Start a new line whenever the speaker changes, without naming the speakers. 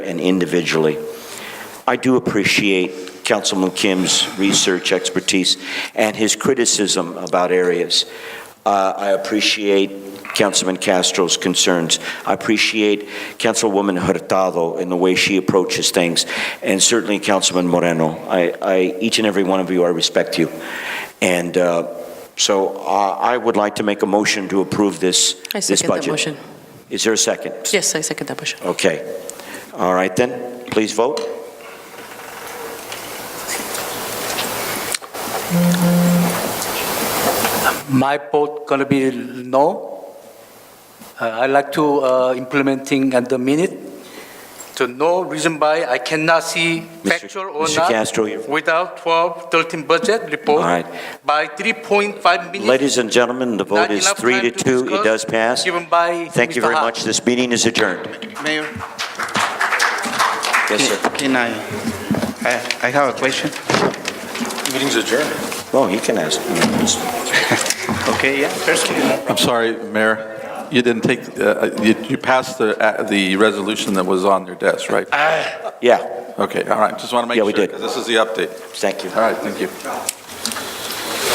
and individually. I do appreciate Councilman Kim's research expertise and his criticism about areas. Uh, I appreciate Councilman Castro's concerns. I appreciate Councilwoman Hurtado and the way she approaches things, and certainly Councilman Moreno. I, I, each and every one of you, I respect you. And uh, so uh, I would like to make a motion to approve this,
I
this
second that
budget.
motion.
Is there a second?
Yes, I second that motion.
Okay. All right then, please vote.
My vote gonna be no. Uh, I like to uh, implementing at the minute. So no reason why I cannot see factual or
Mr.
not
Castro, you-
without 12, 13 budget
All
report
right.
by 3.5 minutes.
Ladies and gentlemen, the vote
Not
is
enough
three to
time to
two. It
discuss,
does pass.
given by
Thank you
Mr.
very
Ha.
much. This meeting is adjourned.
Mayor,
Yes,
can
sir.
can I, I I have a question.
Meeting's adjourned.
Well, you can ask.
Okay, yeah, personally.
I'm sorry, Mayor, you didn't take, uh, you you passed the uh, the resolution that was on your desk, right?
Yeah,
Okay, all right, just want to make
Yeah,
sure.
we did.
'cause This is the update.
thank you.
All right, thank you.